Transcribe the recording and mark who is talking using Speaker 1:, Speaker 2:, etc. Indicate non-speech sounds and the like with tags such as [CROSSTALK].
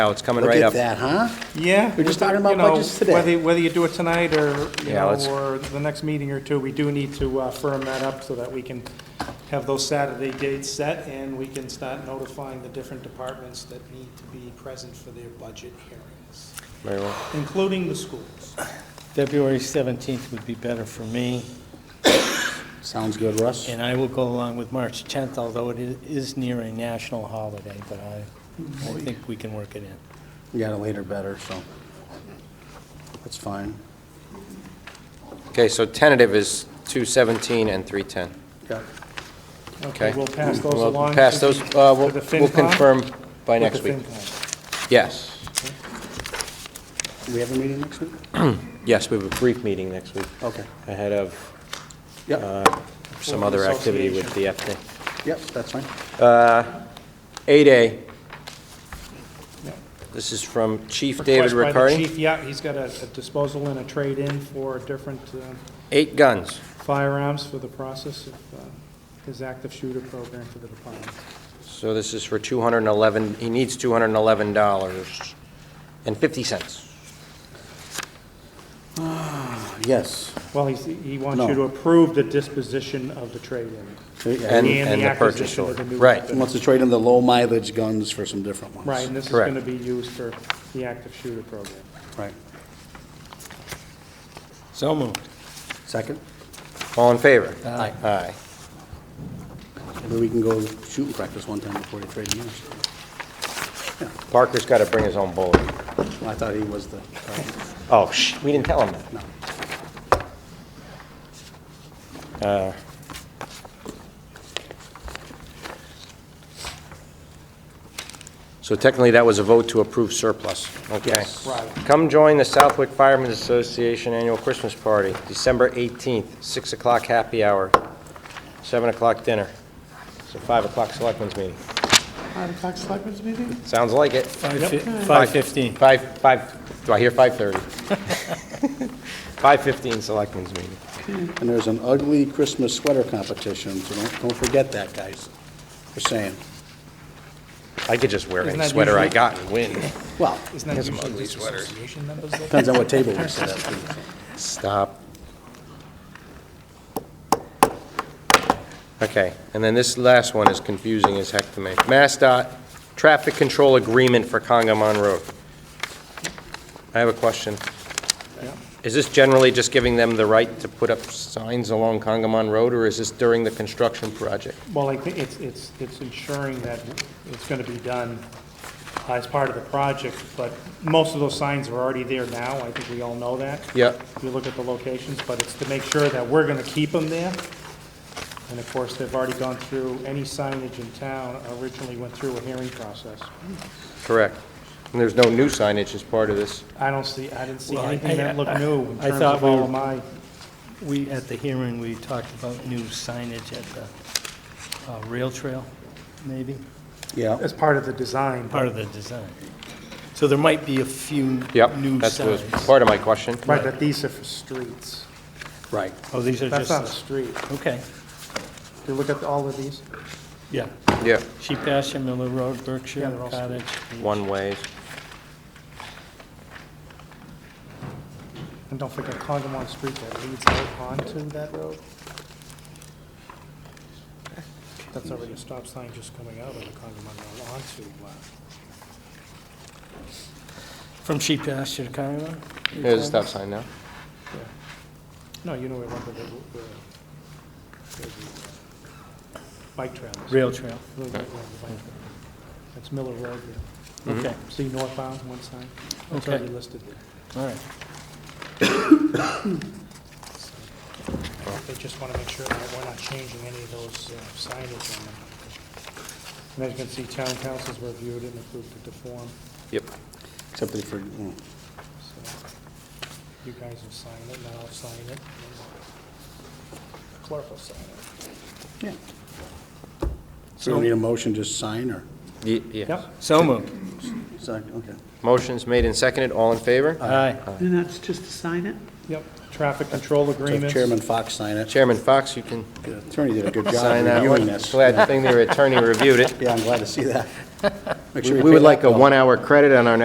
Speaker 1: Now, it's coming
Speaker 2: Look
Speaker 1: right
Speaker 2: at
Speaker 1: up.
Speaker 2: that, huh?
Speaker 3: Yeah.
Speaker 2: We're just
Speaker 3: we-
Speaker 2: talking about
Speaker 3: you know,
Speaker 2: budgets today.
Speaker 3: Whether, whether you do it tonight or, you
Speaker 1: Yeah,
Speaker 3: know,
Speaker 1: let's-
Speaker 3: or the next meeting or two, we do need to uh, firm that up so that we can have those Saturday dates set and we can start notifying the different departments that need to be present for their budget hearings,
Speaker 1: Very well.
Speaker 3: including the schools.
Speaker 4: February 17th would be better for me,
Speaker 2: Sounds good, Russ.
Speaker 4: and I will go along with March 10th, although it i- is near a national holiday, but I, I think we can work it in.
Speaker 2: You got it later better, so that's fine.
Speaker 1: Okay, so tentative is 217 and 310.
Speaker 2: Yeah.
Speaker 1: Okay.
Speaker 3: We'll pass those
Speaker 1: We'll
Speaker 3: along.
Speaker 1: Pass
Speaker 3: to the-
Speaker 1: those, uh, we'll
Speaker 3: to the
Speaker 1: we'll
Speaker 3: FinCom,
Speaker 1: confirm by
Speaker 3: with
Speaker 1: next
Speaker 3: the
Speaker 1: week.
Speaker 3: FinCom.
Speaker 1: Yes,
Speaker 2: We have a meeting next week?
Speaker 1: yes, we have a brief meeting next week
Speaker 2: Okay.
Speaker 1: ahead of Uh,
Speaker 2: Yep,
Speaker 1: some other activity with the FD.
Speaker 2: yep, that's fine.
Speaker 1: uh, 8A,
Speaker 3: Yeah.
Speaker 1: this is from Chief David
Speaker 3: Request by the
Speaker 1: Riccardi.
Speaker 3: chief, yeah, he's got a a disposal and a trade-in for different uh,
Speaker 1: Eight guns.
Speaker 3: firearms for the process of uh, his active shooter program for the department.
Speaker 1: So this is for 211, he needs $211 and 50 cents.
Speaker 2: Yes.
Speaker 3: Well, he's, he wants
Speaker 2: No.
Speaker 3: you to approve the disposition of the trade-in.
Speaker 2: And
Speaker 1: And,
Speaker 3: And the
Speaker 1: and the purchase
Speaker 3: acquisition of
Speaker 1: order.
Speaker 3: the new
Speaker 1: Right,
Speaker 3: weapon.
Speaker 2: wants to trade in the low mileage guns for some different ones.
Speaker 3: Right, and this is
Speaker 1: Correct.
Speaker 3: going to be used for the active shooter program.
Speaker 2: Right.
Speaker 4: So moved.
Speaker 2: Second,
Speaker 1: all in favor?
Speaker 4: Aye.
Speaker 1: Aye.
Speaker 2: maybe we can go shooting practice one time before they trade in. yours.
Speaker 1: Parker's got to bring his own bullet.
Speaker 2: I thought he was the, uh,
Speaker 1: Oh, sh, we didn't tell him that. Uh, So technically, that was a vote to approve surplus, okay?
Speaker 2: Yes.
Speaker 1: Come join the Southwick Firemen's Association Annual Christmas Party, December 18th, 6 o'clock happy hour, 7 o'clock dinner. It's a 5 o'clock selectmen's meeting. Sounds like it.
Speaker 4: Five fif- 5:15.
Speaker 1: Five, five, do I hear [LAUGHS] 5:30? 5:15 Selectmen's meeting.
Speaker 2: and there's an ugly Christmas sweater competition, so don't, don't forget that, guys. Just saying.
Speaker 1: I could just wear
Speaker 3: Isn't
Speaker 1: any
Speaker 3: that
Speaker 1: sweater I
Speaker 3: usual?
Speaker 1: got and
Speaker 3: [LAUGHS]
Speaker 1: win.
Speaker 2: Well,
Speaker 3: Isn't that usually the association members? that-
Speaker 2: depends on what table we sit at. too.
Speaker 1: Stop. Okay, and then this last one is confusing as heck to me. MassDOT Traffic Control Agreement for Congamon Road. I have a question. Is this generally just giving them the right to put up signs along Congamon Road, or is this during the construction project?
Speaker 3: Well, I think it's, it's, it's ensuring that it's going to be done uh, as part of the project, but most of those signs are already there now, I think we all know that.
Speaker 1: Yeah.
Speaker 3: If you look at the locations, but it's to make sure that we're going to keep them there. And of course, they've already gone through, any signage in town originally went through a hearing process.
Speaker 1: Correct. And there's no new signage as part of this.
Speaker 3: I don't see, I didn't see
Speaker 4: Well, I-
Speaker 3: anything that looked new in
Speaker 4: I
Speaker 3: terms
Speaker 4: thought
Speaker 3: of
Speaker 4: we
Speaker 3: all
Speaker 4: were-
Speaker 3: of my,
Speaker 4: We, at the hearing, we talked about new signage at the uh, rail trail, maybe,
Speaker 2: Yeah,
Speaker 3: as part of the design.
Speaker 4: part of the design. So there might be a few
Speaker 1: Yep,
Speaker 4: new
Speaker 1: that's what was
Speaker 4: signs.
Speaker 1: part of my question.
Speaker 3: Right, but these are for streets.
Speaker 2: right.
Speaker 4: Oh, these are
Speaker 3: That's not a
Speaker 4: just,
Speaker 3: street.
Speaker 4: okay,
Speaker 3: If you look at all of these,
Speaker 4: yeah.
Speaker 1: Yeah,
Speaker 4: Sheep pasture, Miller Road,
Speaker 3: Yeah,
Speaker 4: Berkshire
Speaker 3: they're all
Speaker 4: Cottage.
Speaker 1: one ways.
Speaker 3: and don't forget Congamon Street that leads out onto that road. That's already a stop sign just coming out of the Congamon Road onto, uh,
Speaker 4: From sheep pasture to Congamon?
Speaker 1: There's a stop sign now.
Speaker 3: yeah. No, you know where, where, the- where the- where the uh, bike trail is.
Speaker 4: Rail trail,
Speaker 3: Little bit around the bike trail. That's Miller Road there.
Speaker 1: Mm-hmm.
Speaker 4: okay,
Speaker 3: See northbound, one sign? That's
Speaker 4: Okay.
Speaker 3: already listed there.
Speaker 4: all right.
Speaker 3: They just want to make sure that we're not changing any of those uh, signage on them. And as you can see, town councils reviewed it and approved it to form,
Speaker 1: Yep.
Speaker 2: Except for, mm,
Speaker 3: so you guys will sign it, and I'll sign it, and the clerk will sign it.
Speaker 2: yeah. So we need a motion, just sign or?
Speaker 1: Ye- Yes.
Speaker 3: Yep,
Speaker 4: So moved.
Speaker 2: Second, okay.
Speaker 1: Motion's made and seconded, all in favor?
Speaker 4: Aye.
Speaker 5: And that's just to sign it?
Speaker 3: yep, traffic control
Speaker 2: So if
Speaker 3: agreements.
Speaker 2: Chairman Fox sign it.
Speaker 1: Chairman Fox, you can
Speaker 2: The Attorney did a good job
Speaker 1: sign that
Speaker 2: reviewing
Speaker 1: one.
Speaker 2: this.
Speaker 1: Glad the thing their attorney reviewed it. [LAUGHS]
Speaker 2: Yeah, I'm glad to see that. Make
Speaker 1: We
Speaker 2: sure you
Speaker 1: would
Speaker 2: pay that
Speaker 1: like a
Speaker 2: bill.
Speaker 1: one-hour credit on our